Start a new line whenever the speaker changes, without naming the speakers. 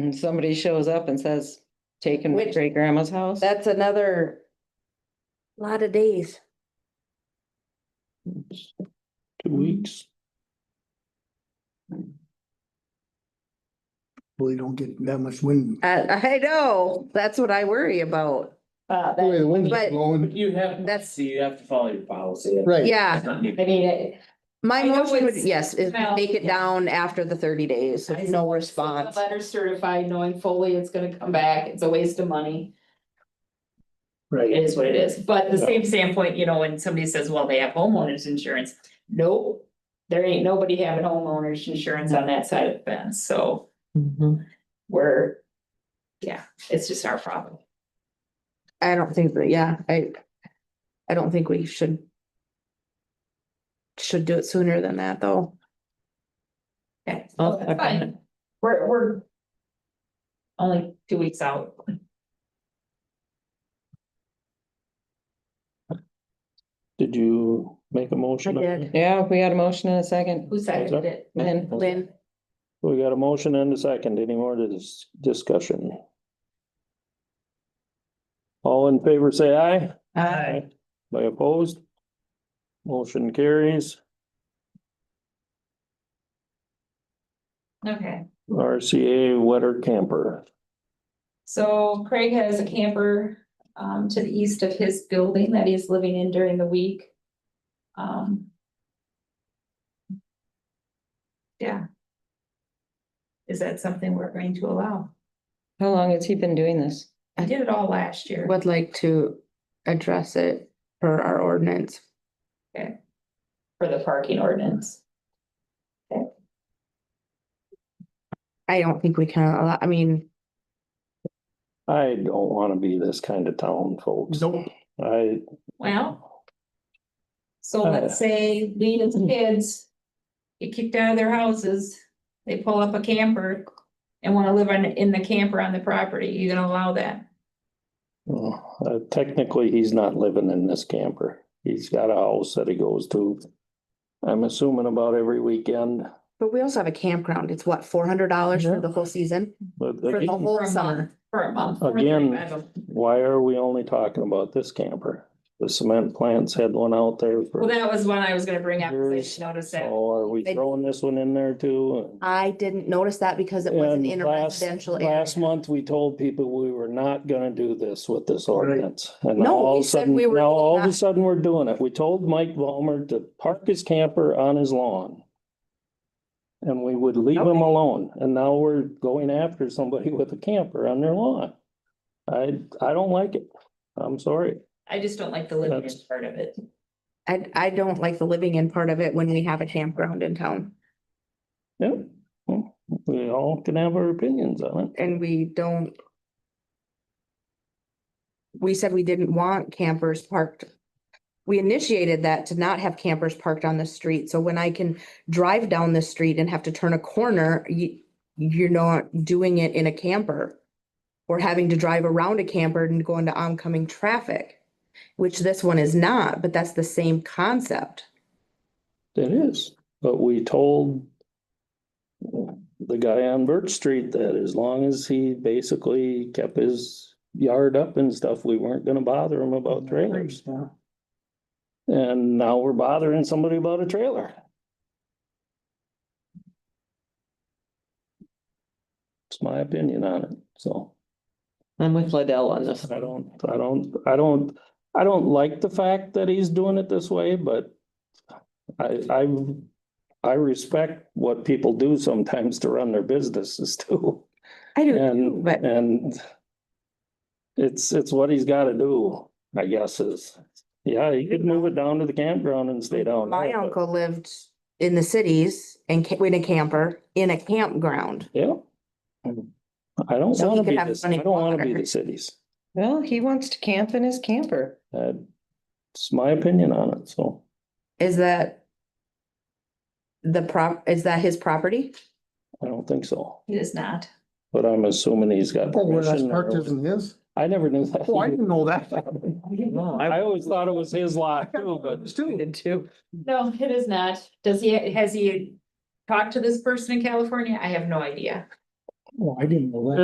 and somebody shows up and says, taken from
Which-
great grandma's house.
That's another,
Lot of days.
Two
Mm-hmm.
weeks.
Well, you don't get that much wind.
I, I know, that's what I worry about.
Uh,
Oh, The way
that-
the wind's
but-
blowing,
You have,
That's-
that's, you have to follow your policy.
right.
Yeah,
It's not new.
I mean, it-
my
I know
motion would,
it's-
yes, is
well,
take it
yeah.
down after the thirty days,
I
if no
suppose
response.
the letter certified, knowing fully it's gonna come back, it's a waste of money, it
Right.
is what it is, but the
Yeah.
same standpoint, you know, when somebody says, well, they have homeowners insurance. Nope, there ain't nobody having homeowners insurance on that side of the fence, so
Mm-hmm.
we're, yeah, it's just our problem.
I don't think that, yeah, I, I don't think we should. Should do it sooner than that, though.
Okay,
I'll
Oh,
so Oh, that's fine. We're, we're only two weeks out.
Did you make a motion?
I did.
Yeah, we had a motion and a second.
Who seconded it?
Lynn,
Lynn,
We got a motion and a second. Any more dis- discussion? All in favor, say aye.
Aye.
By opposed? Motion carries.
Okay,
RCA wetter camper.
so Craig has a camper um to the east of his building that he's living in during the week. Um. Yeah. Is that something we're going to allow?
how long has he been doing this?
I did it all last year.
would like to address it per our ordinance.
For the parking ordinance.
I don't think we can, allow- I mean,
I don't wanna be this kind of town, folks.
Nope.
I,
Well. So let's say Lena's kids get kicked out of their houses, they pull up a camper and wanna live on, in the camper on the property, you gonna allow that?
well, uh, technically, he's not living in this camper. He's got a house that he goes to. I'm assuming about every weekend,
but we also have a campground. It's what, four hundred dollars for
Yeah.
the whole season?
but
For the
again,
For
whole
a
summer.
For a month.
Again. why are we only talking about this camper? The cement plants had one out there
Well,
for,
that was one I was gonna bring up, 'cause I just
Years.
noticed that.
so are we
They-
throwing this one in there too?
I didn't notice that because it wasn't
And
in a
last,
residential area.
last month, we told people we were not gonna do this with this ordinance. And
No,
now all
we
of a
said
sudden,
we were
now all of a
not-
sudden, we're doing it. We told Mike Ballmer to park his camper on his lawn. And we would leave him alone. And now we're going after somebody with a camper on their lawn. I, I don't like it. I'm sorry.
I just don't like the living in
That's-
part of it.
I, I don't like the living in part of it when we have a campground in town
Yeah. Well, We all can have our opinions on it.
and we don't. We said we didn't want campers parked. We initiated that to not have campers parked on the street. So when I can drive down the street and have to turn a corner, you, you're not doing it in a camper. Or having to drive around a camper and go into oncoming traffic, which this one is not, but that's the same concept.
It is, but we told the guy on Birch Street that as long as he basically kept his yard up and stuff, we weren't gonna bother him about trailers. And now we're bothering somebody about a trailer. It's my opinion on it, so.
I'm with Liddell on this.
I don't, I don't, I don't, I don't like the fact that he's doing it this way, but I, I, I respect what people do sometimes to run their businesses too.
I do too,
And,
but.
and it's, it's what he's gotta do, I guess is, yeah, he could move it down to the campground and stay down.
My
there, but-
uncle lived in the cities and ca- in a camper, in a campground.
Yeah. I don't
So he
wanna
could
be
have
this, I
running
don't wanna be
water.
the cities.
Well, he wants to camp in his camper.
That's my opinion on it, so.
Is that the prop, is that his property?
I don't think so,
It is not.
but I'm assuming he's got.
Oh, where that's
permission
parked
or-
isn't his?
I never knew that.
Oh, I didn't know that.
I always thought it was his lot too,
It's
but
too.
Did too.
No, it is not. Does he, has he talked to this person in California? I have no idea.
Well, Oh, I didn't know that.